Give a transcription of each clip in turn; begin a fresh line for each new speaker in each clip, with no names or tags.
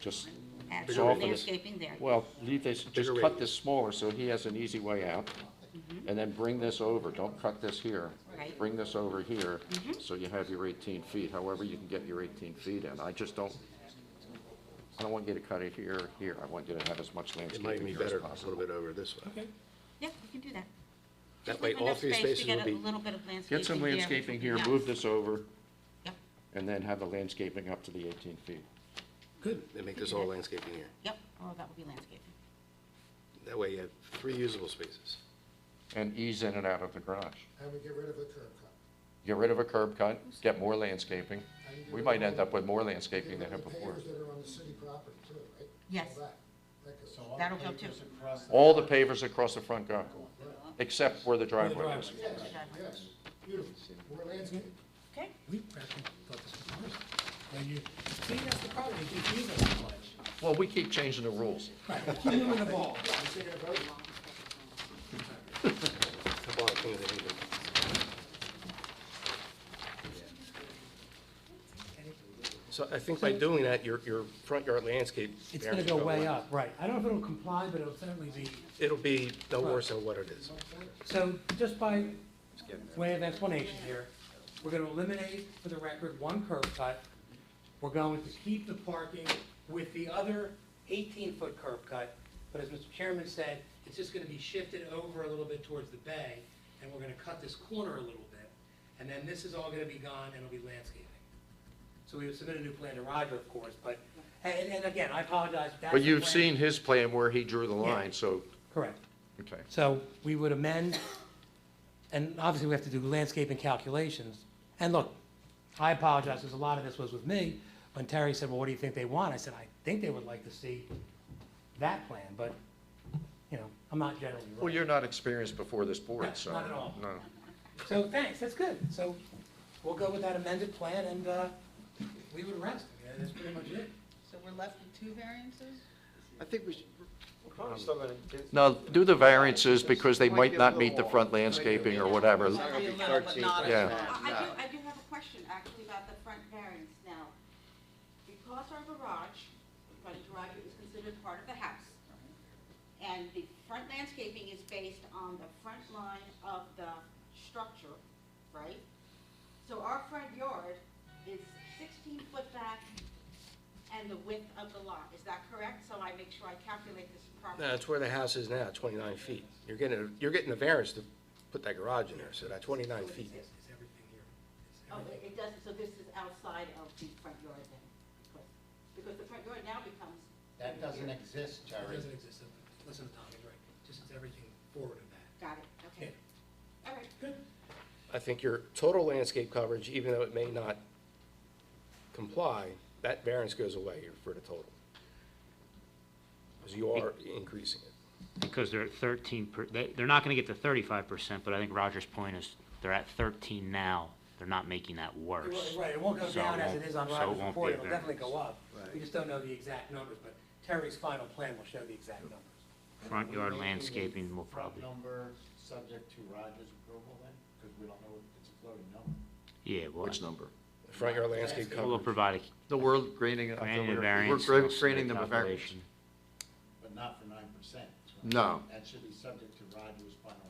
just
actual
soften it.
landscaping there.
Well, leave this,
Bigger
just cut
radius.
this smaller so he has an easy way out. And then bring this over, don't cut this here.
Mm-hmm. Right. Mm-hmm.
Bring this over here, so you have your eighteen feet, however you can get your eighteen feet in. I just don't, I don't want you to cut it here, or here, I want you to have as much
It might
landscaping here
be
as
better a little
possible.
bit over this way.
Okay.
Yeah, we can do that.
That
Just
way,
leave
all
enough
three
space to
spaces will
Get a
be,
little bit of landscaping there.
Get some landscaping here,
Yeah.
move this over,
Yep,
and then have the landscaping up to the eighteen feet.
good, and make this all landscaping here.
yep, oh, that would be landscaping.
That way you have three usable spaces.
And ease in and out of the garage.
And we get rid of the curb cut.
Get rid of a curb cut, get more landscaping.
And get
We
rid
might
of
end
the-
up with more
Get
landscaping
rid
than
of
had
the
before.
pavers that are on the city property too, right?
Yes.
All that, that goes.
That'll go too.
All the pavers across the front go, except where the driveway is.
driveway.
Yes, yes, beautiful, more landscape.
Okay,
We practically thought this was ours. Now you, see, that's the problem, we keep using it so much.
Well, we keep changing the rules.
Right, we keep moving the ball.
You taking a vote?
How about a thing that even- So I think by doing that, your, your front yard landscape.
It's gonna
variance
go
will
way up, right. I don't know if it'll comply, but it'll certainly be,
It'll be no worse than what it is.
so just by way of explanation here, we're gonna eliminate for the record one curb cut. We're going to keep the parking with the other eighteen-foot curb cut, but as Mr. Chairman said, it's just gonna be shifted over a little bit towards the bay, and we're gonna cut this corner a little bit, and then this is all gonna be gone, and it'll be landscaping. So we would submit a new plan to Roger, of course, but, and, and again, I apologize, that's.
But
the
you've
plan.
seen his plan where he drew the line, so,
Correct.
okay.
So we would amend, and obviously we have to do landscaping calculations. And look, I apologize, because a lot of this was with me. When Terry said, well, what do you think they want? I said, I think they would like to see that plan, but, you know, I'm not generally
Well,
right.
you're not experienced before this board,
No,
so.
not at all.
no.
So thanks, that's good. So we'll go with that amended plan and uh, we would rest. I mean, That's pretty much it.
So we're left with two variances?
I think we should. We're probably still gonna.
Now, do the variances because they might not meet the front landscaping or whatever.
It's not gonna be
Might be a little, but
13,
not
but
a
it's
lot.
not-
I I
no.
do, I do have a question actually about the front variance now. Because our garage, front garage is considered part of the house. And the front landscaping is based on the front line of the structure, right? So our front yard is sixteen foot back and the width of the lot, is that correct? So I make sure I calculate this
No,
properly.
that's where the house is now, twenty-nine feet. You're getting, a- you're getting a variance to put that garage in there, so that twenty-nine feet.
Oh, it it doesn't, so this is outside of the front yard then? because- Because the front yard now becomes
That doesn't exist, Terry.
Doesn't exist. Listen to Tom, he's right. Just it's everything forward of that.
Got it, okay. All right,
I think your total landscape coverage, even though it may not comply, that variance goes away for the total. Because you are increasing it.
because they're at thirteen, per- they, they're not gonna get to thirty-five percent, but I think Roger's point is, they're at thirteen now, they're not making that
It
worse.
won't- Right, it won't go
So it
down as it
won't-
is on
so it
Rogers
won't
report,
be a
it'll definitely
variance.
go up. We just don't know the exact numbers, but Terry's final plan will show the exact numbers.
Front
Are we
yard
making a
landscaping will
front
probably,
Number subject to Roger's approval then, because we don't know if it's a floating number.
yeah, well,
Which number?
Front yard landscape
we'll
coverage.
provide
The world grading.
a, granted a variance.
We're
they'll submit
grading them a variance.
calculation.
But not for nine percent.
No.
That should be subject to Roger's final.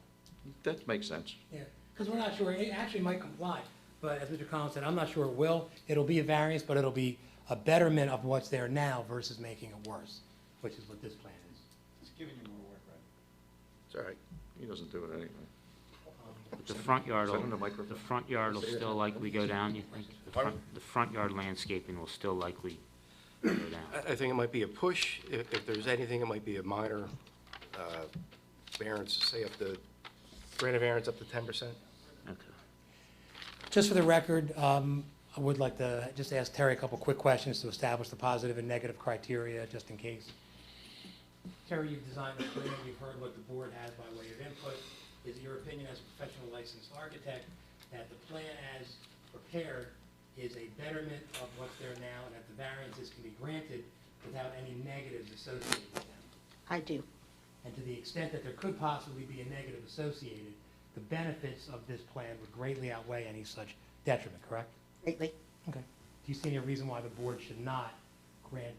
That makes sense.
Yeah, because we're not sure, it actually might comply, but as Mr. Collins said, I'm not sure it will. It'll be a variance, but it'll be a betterment of what's there now versus making it worse, which is what this plan is.
It's giving you more work, Roger.
It's all right.
He doesn't do it anyway.
The front yard
Is that on the
will,
microphone?
the front yard will still likely go down, you think? The front, the front yard landscaping will still likely go
Uh,
down.
I, I think it might be a push. If, if there's anything, it might be a minor, uh, variance, say up to, grant a variance up to ten percent.
Okay.
Just for the record, um, I would like to just ask Terry a couple quick questions to establish the positive and negative criteria, just in case. Terry, you've designed the plan, you've heard what the board has by way of input. Is it your opinion as a professional licensed architect that the plan as prepared is a betterment of what's there now and that the variances can be granted without any negatives associated with them?
I do.
And to the extent that there could possibly be a negative associated, the benefits of this plan would greatly outweigh any such detriment, correct?
Lately?
Okay. Do you see any reason why the board should not grant